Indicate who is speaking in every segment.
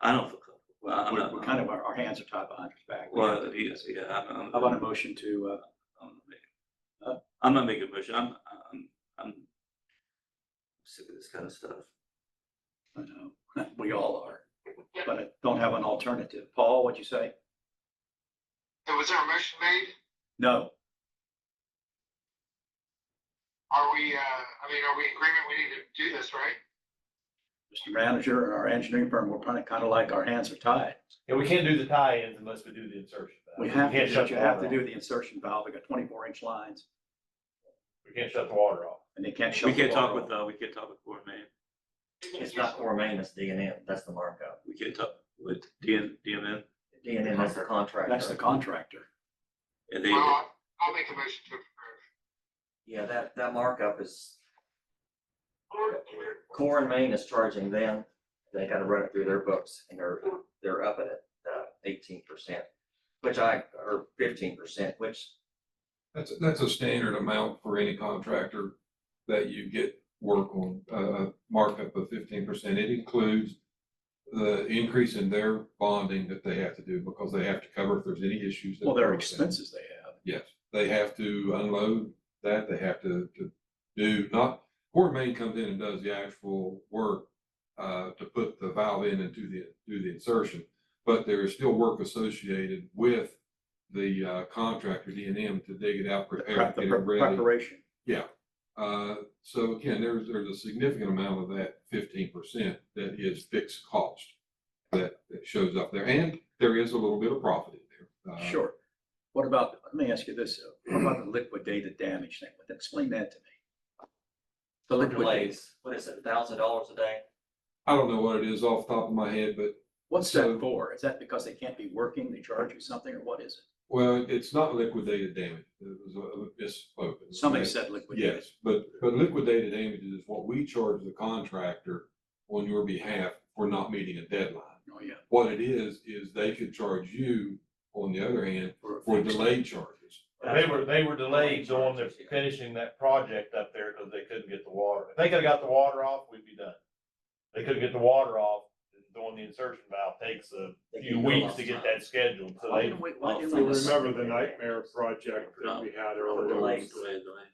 Speaker 1: I don't feel comfortable. Well, I'm
Speaker 2: We're
Speaker 1: not.
Speaker 2: we're kind of, our, our hands are tied behind our back. We have
Speaker 1: Well,
Speaker 2: to do
Speaker 1: yes,
Speaker 2: this.
Speaker 1: yeah, I'm,
Speaker 2: How
Speaker 1: I'm,
Speaker 2: about a motion to, uh,
Speaker 1: I'm not
Speaker 2: Huh?
Speaker 1: making- I'm not making a motion. I'm, I'm, I'm sick of this kind of stuff.
Speaker 2: uh, I know, we all are, but I don't have an alternative. Paul, what'd you say?
Speaker 3: So was there a motion made?
Speaker 2: No,
Speaker 3: Are we, uh, I mean, are we in agreement? We need to do this, right?
Speaker 2: Mr. Manager and our engineering firm, we're kind of, kind of like our hands are tied.
Speaker 4: Yeah, we can't do the tie-ins unless we do the insertion.
Speaker 2: We have,
Speaker 4: can't
Speaker 2: to
Speaker 4: shut
Speaker 2: you
Speaker 4: the
Speaker 2: have
Speaker 4: water
Speaker 2: to do
Speaker 4: off.
Speaker 2: the insertion valve. We got twenty-four inch lines
Speaker 4: We can't shut the water off.
Speaker 2: and they can't shut
Speaker 1: We
Speaker 2: the
Speaker 1: can't talk
Speaker 2: water
Speaker 1: with, uh, we can't talk with Core Maine.
Speaker 5: It's not four main, it's D and M, that's the markup.
Speaker 1: We can't talk with DN, DMN.
Speaker 5: D and M, that's the
Speaker 2: off.
Speaker 5: contract.
Speaker 2: That's the contractor.
Speaker 1: And they,
Speaker 3: Well, I'll- I'll make a motion to approve.
Speaker 5: Yeah, that, that markup is, Core and Main is charging them, they gotta run it through their books, and they're, they're up at it, uh, eighteen percent, which I, or fifteen percent, which,
Speaker 6: That's, that's a standard amount for any contractor that you get work on, uh, markup of fifteen percent. It includes the increase in their bonding that they have to do because they have to cover if there's any issues. that-
Speaker 2: Well, there are expenses they have.
Speaker 6: Yes, they have to unload that, they have to, to do, not, Port Main comes in and does the actual work uh, to put the valve in and do the, do the insertion, but there is still work associated with the uh, contractor, D and M, to dig it out,
Speaker 2: The
Speaker 6: prepare
Speaker 2: prep-
Speaker 6: it,
Speaker 2: the
Speaker 6: get it
Speaker 2: prep-
Speaker 6: ready.
Speaker 2: Preparation.
Speaker 6: Uh, so again, there's, there's a significant amount of that fifteen percent that is fixed cost that, that shows up there, and there is a little bit of profit in there. Uh,
Speaker 2: Sure. What about, let me ask you this, uh, what about the liquidated damage thing? Explain that to me. The
Speaker 5: for
Speaker 2: liquidated,
Speaker 5: delays, what is it, thousand dollars a day?
Speaker 6: I don't know what it is off the top of my head, but
Speaker 2: what's that
Speaker 6: So-
Speaker 2: for? Is that because they can't be working? They charge you something or what is it?
Speaker 6: Well, it's not liquidated damage. It was a misspoke.
Speaker 2: Somebody said liquidated.
Speaker 6: Yes, but, but liquidated damages is what we charge the contractor on your behalf for not meeting a deadline.
Speaker 2: Oh, yeah.
Speaker 6: What it is, is they could charge you, on the other hand,
Speaker 2: For-
Speaker 6: for delayed charges.
Speaker 4: They were, they were delayed on the
Speaker 5: Charges, yeah.
Speaker 4: finishing that project up there because they couldn't get the water. If they could have got the water off, we'd be done. They couldn't get the water off, and doing the insertion valve takes a
Speaker 5: They
Speaker 4: few
Speaker 5: can go
Speaker 4: weeks
Speaker 5: off
Speaker 4: to get
Speaker 5: time.
Speaker 4: that scheduled, so
Speaker 2: Why
Speaker 4: they,
Speaker 2: didn't we, why didn't
Speaker 5: So
Speaker 7: You
Speaker 2: we just-
Speaker 7: remember the nightmare project that we had earlier?
Speaker 5: Delays.
Speaker 1: delay, delay.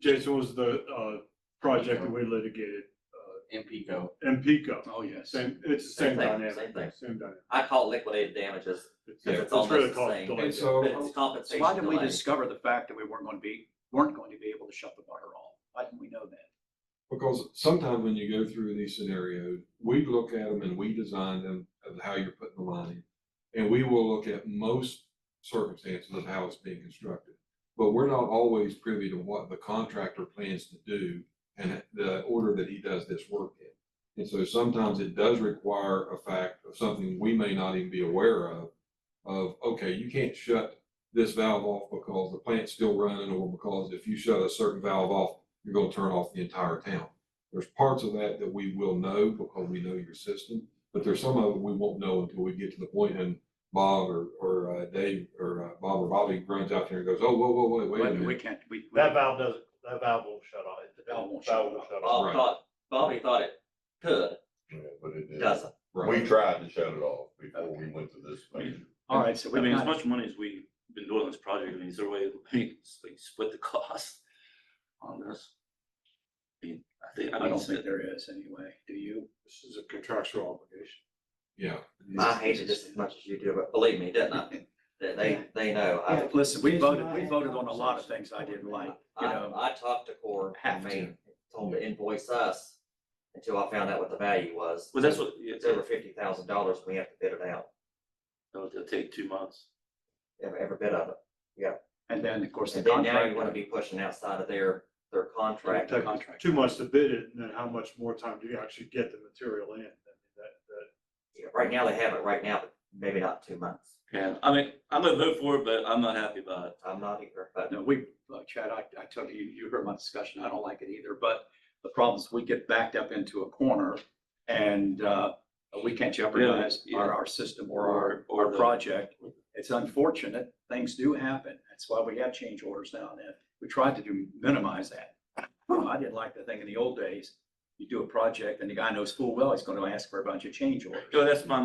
Speaker 7: Jason was the, uh, project that we litigated,
Speaker 5: In Pico.
Speaker 7: and Pico,
Speaker 2: Oh, yes.
Speaker 7: same, it's the same
Speaker 5: Same thing,
Speaker 7: dynamic.
Speaker 5: same thing.
Speaker 7: Same dynamic.
Speaker 5: I call it liquidated damages,
Speaker 6: Yeah.
Speaker 5: because it's
Speaker 7: It's
Speaker 5: almost
Speaker 7: really
Speaker 5: the
Speaker 7: called
Speaker 5: same,
Speaker 7: delay.
Speaker 6: And
Speaker 5: but
Speaker 6: so,
Speaker 5: it's
Speaker 2: So
Speaker 5: compensation
Speaker 2: why didn't we
Speaker 5: delay.
Speaker 2: discover the fact that we weren't going to be, weren't going to be able to shut the water off? Why didn't we know that?
Speaker 6: because sometimes when you go through these scenarios, we look at them and we design them of how you're putting the line in. And we will look at most circumstances of how it's being constructed. But we're not always privy to what the contractor plans to do and the order that he does this work in. And so sometimes it does require a fact of something we may not even be aware of, of, okay, you can't shut this valve off because the plant's still running or because if you shut a certain valve off, you're gonna turn off the entire town. There's parts of that that we will know because we know your system, but there's some of it we won't know until we get to the point and Bob or, or uh, Dave or uh, Bob or Bobby runs out there and goes, oh, whoa, whoa, whoa, wait a
Speaker 2: Wait,
Speaker 6: minute.
Speaker 2: We can't, we. we-
Speaker 4: that valve doesn't, that valve won't shut off.
Speaker 2: The valve won't shut off.
Speaker 5: Bob
Speaker 6: Right.
Speaker 5: thought, Bobby thought it could,
Speaker 8: Yeah, but it didn't.
Speaker 5: doesn't.
Speaker 6: Right.
Speaker 8: We tried to shut it off before we went to this measure.
Speaker 2: All right, so
Speaker 1: I
Speaker 2: we
Speaker 1: mean, as
Speaker 2: kind of,
Speaker 1: much money as we've been doing on this project, I mean, is there a way, I mean, s- like, split the cost on this? I mean, I think, I
Speaker 2: I
Speaker 1: mean,
Speaker 2: don't
Speaker 1: it's-
Speaker 2: think there is anyway. Do you?
Speaker 7: This is a contractual obligation.
Speaker 6: Yeah.
Speaker 5: I hated this as much as you do, but believe me, didn't I? That They, they know. I-
Speaker 2: Yeah, Uh, Listen, we voted, we voted on a lot of things I didn't like, you
Speaker 5: I,
Speaker 2: know,
Speaker 5: I talked to Core, I
Speaker 2: Have to.
Speaker 5: mean, told them to invoice us until I found out what the value was.
Speaker 1: well, that's what, yeah,
Speaker 5: It's over fifty thousand dollars, we have to bid it out,
Speaker 1: it'll it'll take two months.
Speaker 5: every, every bit of it.
Speaker 2: and then, of course, the
Speaker 5: And then now you wanna
Speaker 2: contract.
Speaker 5: be pushing outside of their, their contract.
Speaker 7: Take Two months to bid it, and then how much more time do you actually get the material in? I mean, that- that-
Speaker 5: Yeah, Right now they have it, right now, but maybe not two months.
Speaker 1: Yeah, I mean, I'm gonna vote for it, but I'm not happy about it.
Speaker 5: I'm not either, but
Speaker 2: No, we, look, Chad, I, I told you, you heard my discussion. I don't like it either, but the problem is we get backed up into a corner and, uh, we can't jeopardize
Speaker 1: yeah.
Speaker 2: our, our system or our,
Speaker 1: Or- or
Speaker 2: our
Speaker 1: the-
Speaker 2: project. It's unfortunate. Things do happen. That's why we have change orders now and then. We tried to do, minimize that. Um, I didn't like the thing in the old days you do a project and the guy knows full well he's gonna ask for a bunch of change orders.
Speaker 1: So that's my